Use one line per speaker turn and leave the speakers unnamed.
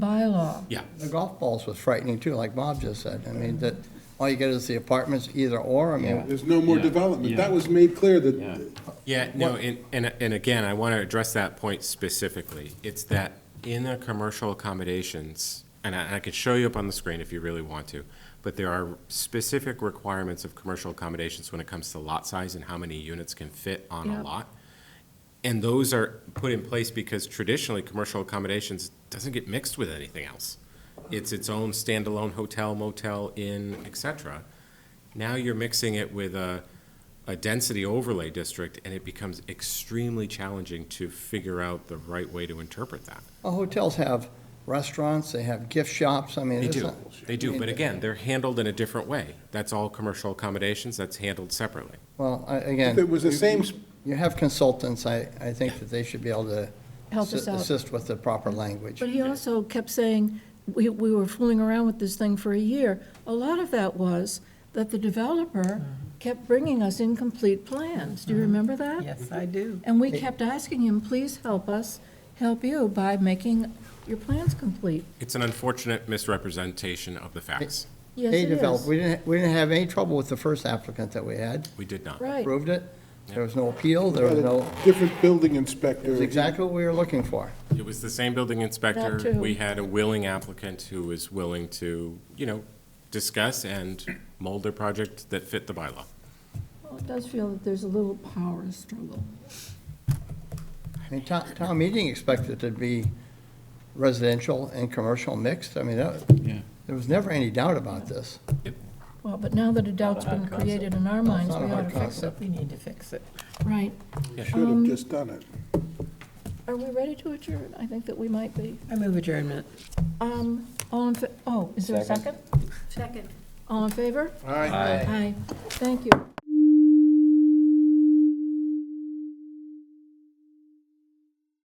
well.
Yeah.
The golf balls was frightening too, like Bob just said. I mean, that, all you get is the apartments either or, I mean,
There's no more
Yeah,
development.
yeah.
That was made clear
Yeah.
that,
Yeah, no, and, and, and again, I want to address that point specifically. It's that in the commercial accommodations, and I, and I could show you up on the screen if you really want to, but there are specific requirements of commercial accommodations when it comes to lot size and how many units can fit on a
Yeah.
lot. And those are put in place because traditionally, commercial accommodations doesn't get mixed with anything else. It's its own standalone hotel, motel, inn, et cetera. Now you're mixing it with a, a density overlay district, and it becomes extremely challenging to figure out the right way to interpret that.
well, uh, hotels have restaurants, they have gift shops, I mean.
They
it's
do,
not-
they do, but again, they're handled in a different way. That's all commercial accommodations, that's handled separately.
Well, I-
if it
again,
was the same, s-
you have consultants, I, I think that they should be able to
Help us
assi-
out.
assist with the proper language.
But he also kept saying, we, we were fooling around with this thing for a year. A lot of that was that the developer
Uh-huh.
kept bringing us incomplete plans. Do you remember that?
Yes, I do.
And we kept asking him, please help us, help you by making your plans complete.
It's an unfortunate misrepresentation of the facts.
Yes,
They
it
developed,
is.
we didn't, we didn't have any trouble with the first applicant that we had,
We did not.
Right.
approved it. There was no appeal, there
by
was
the
no,
different building
it
inspector.
was exactly what we were looking for.
It was the same building inspector.
That too.
We had a willing applicant who was willing to, you know, discuss and mold their project that fit the bylaw.
Well, It does feel that there's a little power struggle.
I mean, town, town meeting expected to be residential and commercial mixed. I mean, that-
yeah.
there was never any doubt about this.
Well, but now that a doubt's been created in our minds,
not a
we ought
hard
to fix it.
concept.
We need to fix it.
Right.
Should have just done it.
Are we ready to adjourn? I think that we might be.
I move adjournment.
Um, all in, fa- oh, is there a second? Second. All in favor?
All right.
Aye. Thank you.